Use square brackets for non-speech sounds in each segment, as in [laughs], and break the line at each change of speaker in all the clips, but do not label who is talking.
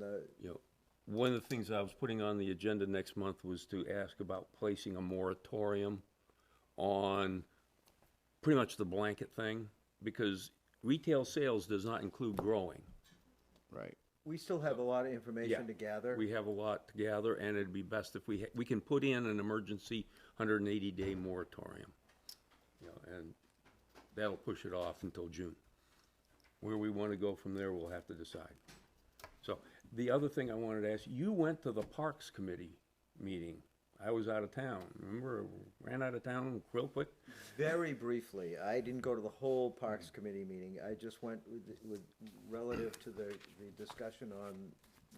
that.
You know, one of the things I was putting on the agenda next month was to ask about placing a moratorium on pretty much the blanket thing, because retail sales does not include growing.
Right.
We still have a lot of information
Yeah.
to gather.
We have a lot to gather, and it'd be best if we, ha- we can put in an emergency hundred and eighty day moratorium. You know, and that'll push it off until June. Where we wanna go from there, we'll have to decide. So, the other thing I wanted to ask, you went to the Parks Committee meeting. I was out of town, remember, ran out of town real quick?
Very briefly, I didn't go to the whole Parks Committee meeting. I just went with, with, relative to the, the discussion on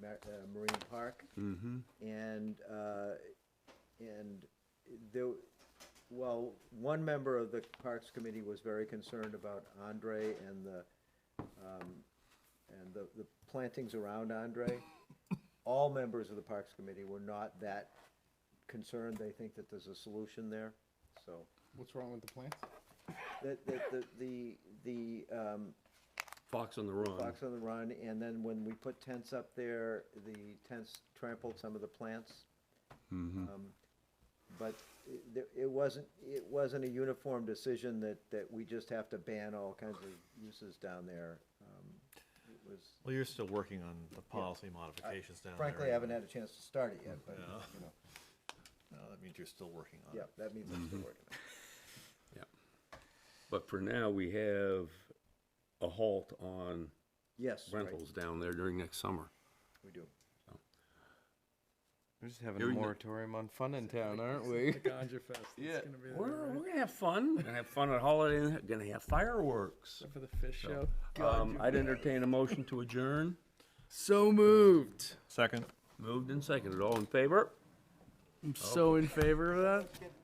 Ma- uh, Marine Park. Mm-hmm. And, uh, and there, well, one member of the Parks Committee was very concerned about Andre and the, um, and the, the plantings around Andre, all members of the Parks Committee were not that concerned. They think that there's a solution there, so.
What's wrong with the plants?
That, that, the, the, the, um,
Fox on the Run.
Fox on the Run, and then when we put tents up there, the tents trampled some of the plants. Um, But it- there- it wasn't, it wasn't a uniform decision that, that we just have to ban all kinds of uses down there. Um, It was,
Well, you're still working on the policy modifications down there.
Frankly, I haven't
anyway.
had a chance to start it yet, but, you know,
No, that means you're still working on
yeah,
it.
that means I'm still working.
Yeah. But for now, we have a halt on
Yes, right,
rentals down there during next summer.
we do.
We're just having a
Hearing the-
moratorium on fun in town, aren't we? [laughs]
Ganja Fest. It's
Yeah.
gonna be there,
We're,
right?
we're gonna have fun. Gonna have fun at Holiday Inn. Gonna have fireworks.
Except for the fish show.
Um, I'd entertain a motion to adjourn.
So moved.
Second?
Moved and seconded. All in favor?
Oh. I'm so in favor of that.